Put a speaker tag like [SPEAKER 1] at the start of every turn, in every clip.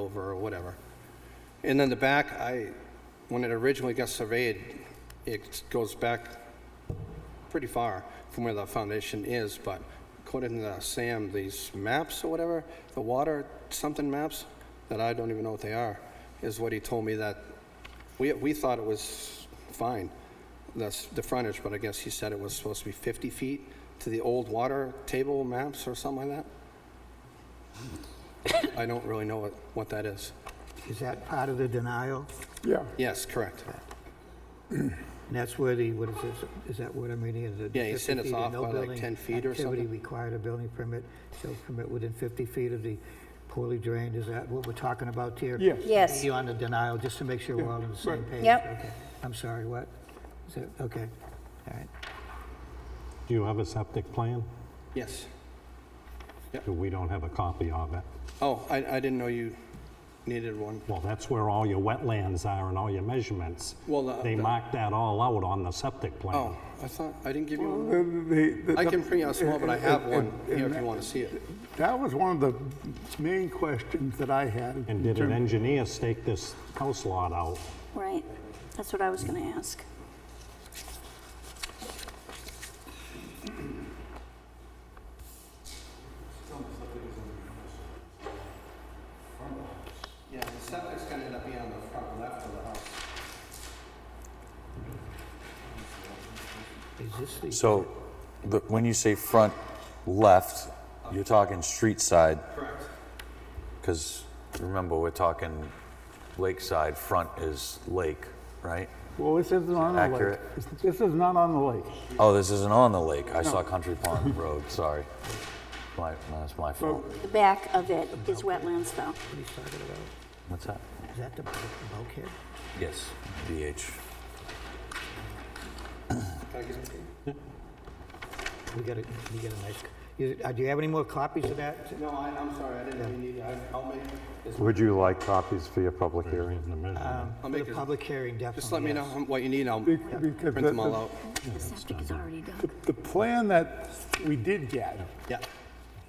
[SPEAKER 1] over or whatever. And then the back, I, when it originally got surveyed, it goes back pretty far from where the foundation is, but according to Sam, these maps or whatever, the water something maps, that I don't even know what they are, is what he told me that, we, we thought it was fine, that's the frontage, but I guess he said it was supposed to be 50 feet to the old water table maps or something like that. I don't really know what, what that is.
[SPEAKER 2] Is that part of the denial?
[SPEAKER 3] Yeah,
[SPEAKER 1] Yes, correct.
[SPEAKER 2] And that's where the, what is this, is that what I'm reading? Is it
[SPEAKER 1] Yeah, he
[SPEAKER 2] 50
[SPEAKER 1] said it's
[SPEAKER 2] feet and
[SPEAKER 1] off
[SPEAKER 2] no
[SPEAKER 1] by like
[SPEAKER 2] building
[SPEAKER 1] 10 feet or
[SPEAKER 2] Activity
[SPEAKER 1] something?
[SPEAKER 2] required a building permit, shall permit within 50 feet of the poorly drained, is that what we're talking about here?
[SPEAKER 3] Yes.
[SPEAKER 4] Yes.
[SPEAKER 2] You on the denial, just to make sure we're all on the same
[SPEAKER 3] right.
[SPEAKER 2] page?
[SPEAKER 4] Yep.
[SPEAKER 2] Okay. I'm sorry, what? Is it, okay, all right.
[SPEAKER 5] Do you have a septic plan?
[SPEAKER 1] Yes.
[SPEAKER 5] We don't have a copy of it.
[SPEAKER 1] Oh, I, I didn't know you needed one.
[SPEAKER 5] Well, that's where all your wetlands are and all your measurements.
[SPEAKER 1] Well, the-
[SPEAKER 5] They
[SPEAKER 1] the-
[SPEAKER 5] marked that all out on the septic plan.
[SPEAKER 1] Oh, I thought, I didn't give you one. I
[SPEAKER 3] I
[SPEAKER 1] can print out small, but I have one here if you want to see it.
[SPEAKER 3] That was one of the main questions that I had.
[SPEAKER 5] And did an
[SPEAKER 3] terms-
[SPEAKER 5] engineer stake this house lot out?
[SPEAKER 4] Right, that's what I was gonna ask.
[SPEAKER 1] Yeah, the septic's gonna end up being on the front left of the house.
[SPEAKER 2] Is this the?
[SPEAKER 6] So, the, when you say front left, you're talking street side,
[SPEAKER 1] Correct.
[SPEAKER 6] because remember, we're talking lakeside, front is lake, right?
[SPEAKER 3] Well, this isn't on the lake.
[SPEAKER 6] accurate?
[SPEAKER 3] This- This is not on the lake.
[SPEAKER 6] Oh, this isn't on the lake, I saw Country Pond Road, sorry. My, that's my fault.
[SPEAKER 4] The back of it is wetlands, though.
[SPEAKER 2] What he's talking about?
[SPEAKER 6] What's that?
[SPEAKER 2] Is that the bulk- bulkhead?
[SPEAKER 6] Yes, BH.
[SPEAKER 2] We got a, we got a nice, you- uh, do you have any more copies of that?
[SPEAKER 1] No, I, I'm sorry, I didn't know you needed, I- I'll make, as-
[SPEAKER 7] Would you like copies for your public hearing?
[SPEAKER 5] In the measurement.
[SPEAKER 1] I'll
[SPEAKER 2] For the
[SPEAKER 1] make, as-
[SPEAKER 2] public hearing, definitely.
[SPEAKER 1] just let me know
[SPEAKER 2] yes.
[SPEAKER 1] what you need, I'll
[SPEAKER 3] Be-
[SPEAKER 1] print
[SPEAKER 3] Because the-
[SPEAKER 1] them all out.
[SPEAKER 4] The septic is already done.
[SPEAKER 3] the- The plan that we did get,
[SPEAKER 1] Yeah,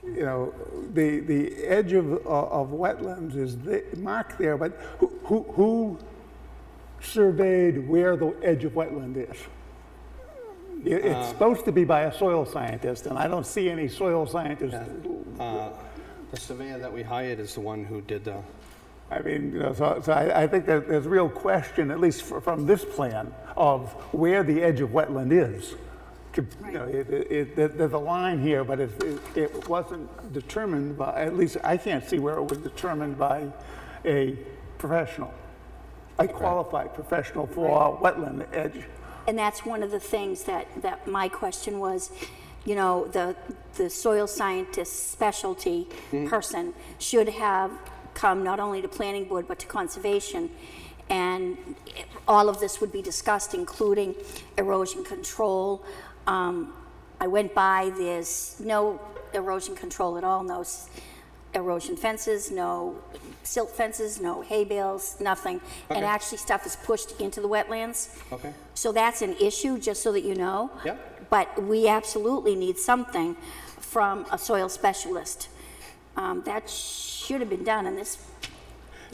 [SPEAKER 3] you know, the, the edge of, uh, of wetlands is the- marked there, but who, who- who surveyed where the edge of wetland is? It- It's supposed to be by a soil scientist, and I don't see any soil scientists
[SPEAKER 1] the surveyor that we hired is the one who did the,
[SPEAKER 3] I mean, you know, so, so I, I think that there's real question, at least fr- from this plan, of where the edge of wetland is. To- you know, it- it- it- there- there's a line here, but it, it- it wasn't determined by, at least I can't see where it was determined by a professional, a qualified professional for wetland edge.
[SPEAKER 4] And that's one of the things that, that my question was, you know, the, the soil scientist specialty
[SPEAKER 1] Mm-hmm.
[SPEAKER 4] person should have come not only to planning board, but to conservation. And it- all of this would be discussed, including erosion control. Um, I went by, there's no erosion control at all, no s- erosion fences, no silt fences, no hay bales, nothing. And
[SPEAKER 1] Okay.
[SPEAKER 4] actually stuff is pushed into the wetlands.
[SPEAKER 1] okay?
[SPEAKER 4] So that's an issue, just so that you know.
[SPEAKER 1] Yep.
[SPEAKER 4] But we absolutely need something from a soil specialist. Um, That should have been done, and this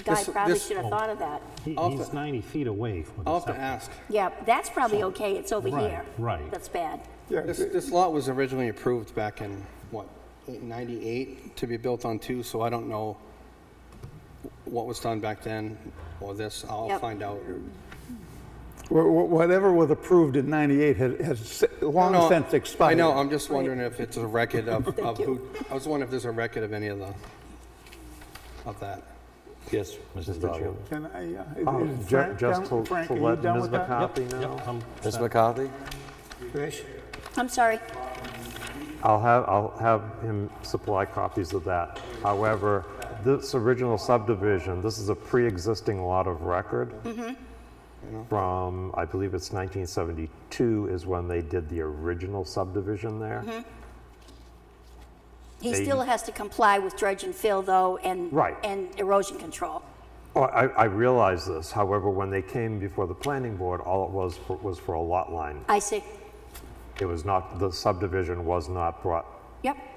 [SPEAKER 4] guy
[SPEAKER 1] This-
[SPEAKER 4] probably
[SPEAKER 1] this-
[SPEAKER 4] should
[SPEAKER 5] Oh.
[SPEAKER 4] have thought of that.
[SPEAKER 5] He-
[SPEAKER 1] I'll
[SPEAKER 5] He's
[SPEAKER 1] fi-
[SPEAKER 5] 90 feet away from
[SPEAKER 1] I'll
[SPEAKER 5] the
[SPEAKER 1] have to
[SPEAKER 5] septic.
[SPEAKER 1] ask.
[SPEAKER 4] Yeah, that's probably okay, it's over
[SPEAKER 5] Oh. Right,
[SPEAKER 4] here.
[SPEAKER 5] right.
[SPEAKER 4] That's bad.
[SPEAKER 1] This, this lot was originally approved back in, what, 98 to be built on two, so I don't know what was done back then or this. I'll
[SPEAKER 4] Yep.
[SPEAKER 1] find out.
[SPEAKER 3] Wha- wha- Whatever was approved in 98 has, has se- long
[SPEAKER 1] No,
[SPEAKER 3] since expired.
[SPEAKER 1] I know,
[SPEAKER 7] uh,
[SPEAKER 1] I'm just wondering if it's a record of, of who, I was wondering if there's a record of any of the, of that.
[SPEAKER 6] Yes, Mrs. Doggo.
[SPEAKER 3] Can I, uh,
[SPEAKER 7] Oh,
[SPEAKER 3] is
[SPEAKER 7] ju-
[SPEAKER 3] Frank
[SPEAKER 7] Just
[SPEAKER 3] done-
[SPEAKER 7] to
[SPEAKER 3] Frank,
[SPEAKER 7] to
[SPEAKER 3] are you
[SPEAKER 7] let
[SPEAKER 3] done
[SPEAKER 7] Ms.
[SPEAKER 3] with that?
[SPEAKER 7] McCarthy know?
[SPEAKER 5] Yep, I'm
[SPEAKER 6] Ms.
[SPEAKER 5] set.
[SPEAKER 6] McCarthy?
[SPEAKER 2] Trish?
[SPEAKER 4] I'm sorry.
[SPEAKER 7] I'll have, I'll have him supply copies of that. However, this original subdivision, this is a pre-existing lot of record. From, I believe it's 1972 is when they did the original subdivision there.
[SPEAKER 4] He still has to comply with dredge and fill, though, and.
[SPEAKER 7] Right.
[SPEAKER 4] And erosion control.
[SPEAKER 7] Oh, I, I realize this, however, when they came before the planning board, all it was, for- was for a lot line.
[SPEAKER 4] I see.
[SPEAKER 7] It was not, the subdivision was not brought
[SPEAKER 4] Yep,